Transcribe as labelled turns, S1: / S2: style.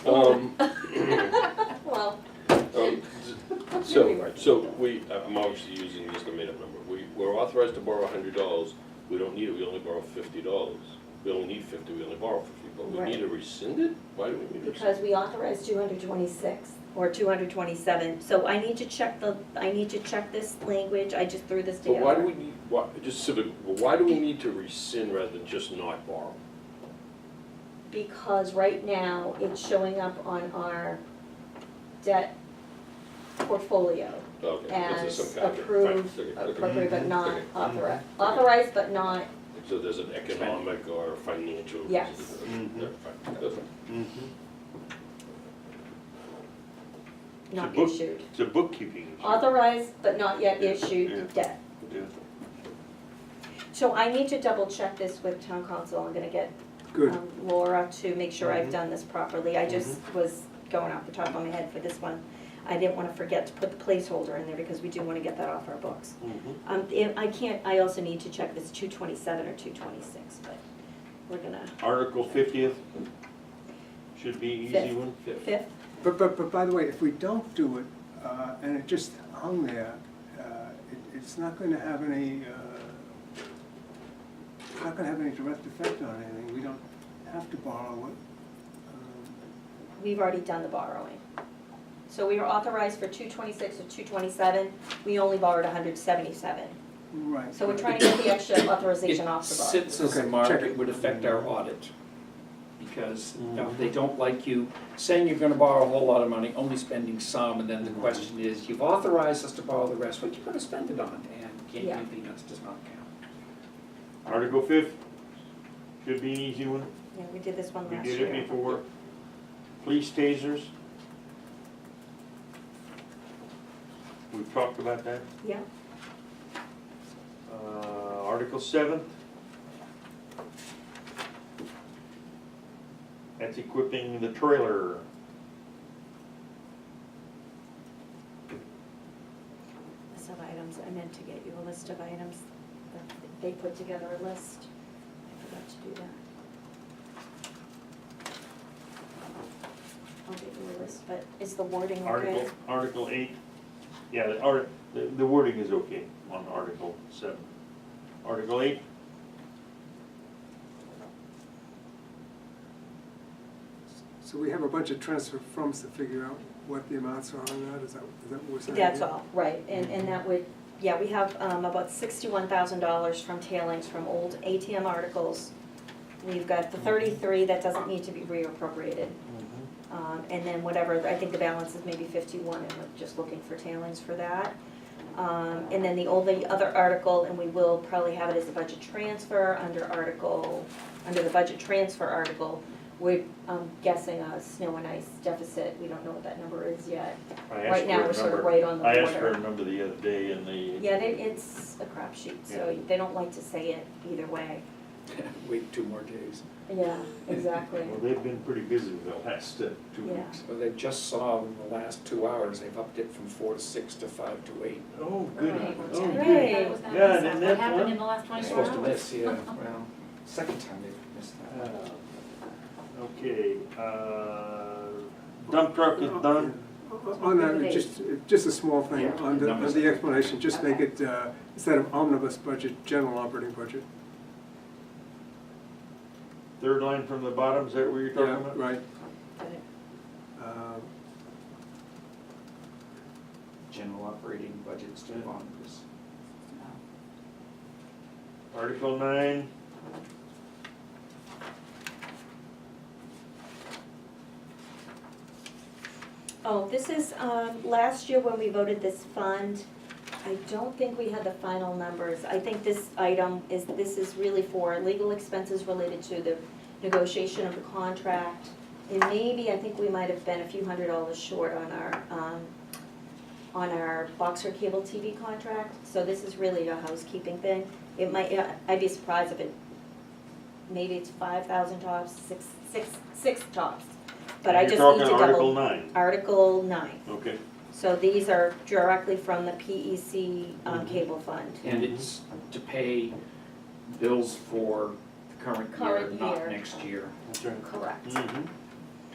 S1: Um,
S2: Well,
S1: um, So, so we, I'm obviously using just a made-up number. We, we're authorized to borrow hundred dollars. We don't need it, we only borrow fifty dollars. We only need fifty, we only borrow fifty, but we
S2: Right.
S1: need to rescind it? Why do we need to rescind?
S2: because we authorized two hundred twenty-six or two hundred twenty-seven, so I need to check the, I need to check this language, I just threw this
S1: But why do
S2: together.
S1: we need, why, just civic, but why do we need to rescind rather than just not borrow?
S2: Because right now, it's showing up on our debt portfolio
S1: Okay, this is
S2: as
S1: some kind of. fine,
S2: approved,
S1: okay, okay.
S2: appropriate but not
S1: Okay. Mm-hmm.
S2: authorized, authorized but not,
S1: So there's an economic or financial. reason.
S2: Yes.
S3: Mhm.
S1: Yeah, fine, that's fine.
S3: Mm-hmm.
S2: not
S3: book-
S2: issued.
S3: It's a bookkeeping issue.
S2: Authorized but not yet
S3: Yeah,
S2: issued debt.
S3: Yeah.
S2: So I need to double check this with town council, I'm gonna get um, Laura to make sure I've done this properly, I just was going off the top of my head for this one. I didn't wanna forget to put the placeholder in there because we do wanna get that off our books.
S3: Mhm.
S2: Um, and I can't, I also need to check if it's two twenty-seven or two twenty-six, but we're gonna,
S3: Article fiftieth should be easy
S2: Fifth.
S3: one. Fifth.
S2: fifth,
S4: But, but, but by the way, if we don't do it, uh, and it just hung there, uh, it, it's not gonna have any, uh, it's not gonna have any direct effect on anything, we don't have to borrow it. Um,
S2: we've already done the borrowing. So we were authorized for two twenty-six or two twenty-seven, we only borrowed hundred seventy-seven.
S4: Um, Right.
S2: So we're trying to get the extra authorization
S5: It
S2: off the books.
S5: sits as a
S4: Okay,
S5: mark,
S4: check
S5: it Mm-hmm.
S4: it.
S5: would affect our audit. Because you know, they don't like you saying you're gonna borrow a whole lot of money, only spending some, and then the question is, you've authorized us to borrow the rest, what you gonna spend it on? And can't
S2: Yeah.
S5: do anything else does not count.
S3: Article fifth should be an easy one.
S2: Yeah, we did this one
S3: We
S2: last year.
S3: did it before. Police tasers. We've talked about that.
S2: Yeah,
S3: Uh, Article seven. That's equipping the trailer.
S2: list of items, I meant to get you a list of items, that they put together a list, I forgot to do that. I'll get you a list, but is the wording okay?
S3: Article, Article eight, yeah, the art, the the wording is okay on Article seven. Article eight.
S4: So we have a bunch of transfer froms to figure out what the amounts are on that, is that, is that what we're saying?
S2: That's all, right, and, and that would, yeah, we have um, about sixty-one thousand dollars from tailings from old ATM articles. We've got the thirty-three that doesn't need to be reappropriated. Um, and then whatever, I think the balance is maybe fifty-one, and we're just looking for tailings for that. Um, and then the only other article, and we will probably have it as a budget transfer under article, under the budget transfer article, we're, um, guessing a snow and ice deficit, we don't know what that number is yet.
S3: I asked
S2: Right now,
S3: for a
S2: we're sort of
S3: number.
S2: right on the
S3: I asked for a
S2: border.
S3: number the other day and they.
S2: Yeah, they, it's a crapshoot, so they don't like to say it either way.
S5: Wait two more days.
S2: Yeah, exactly.
S3: Well, they've been pretty busy the last uh, two
S2: Yeah.
S3: weeks.
S5: So they just saw in the last two hours, they've upped it from four to six to five to eight.
S3: Oh, good,
S6: Right.
S3: oh,
S2: Right.
S3: good.
S6: I thought it was gonna
S3: Yeah,
S6: miss
S3: and then
S6: us. What
S3: that
S6: happened
S3: one-
S6: in the
S5: They're
S6: last twenty-four
S5: supposed
S6: hours?
S5: to miss, yeah, well, second time they've missed that.
S3: Okay, uh, dump truck is done.
S4: Uh, On that, just, just a small thing,
S5: Yeah.
S4: on the, on
S5: Numbers.
S4: the explanation, just make it, uh, instead of omnibus budget, general operating budget.
S3: Third line from the bottom, is that what you're talking
S4: Yeah,
S3: about?
S4: Right. Um,
S5: General operating budget's still on this.
S3: Article nine.
S2: Oh, this is, um, last year when we voted this fund, I don't think we had the final numbers. I think this item is, this is really for legal expenses related to the negotiation of the contract. And maybe, I think we might have been a few hundred dollars short on our, um, on our Boxer cable TV contract. So this is really a housekeeping thing. It might, yeah, I'd be surprised if it, maybe it's five thousand tops, six, six, six tops. But I just need to double.
S3: You're talking Article nine,
S2: Article nine.
S3: okay.
S2: So these are directly from the PEC um, cable fund.
S5: And it's to pay bills for the current year,
S2: Current year.
S5: not next year.
S3: That's right.
S2: Correct.
S3: Mhm.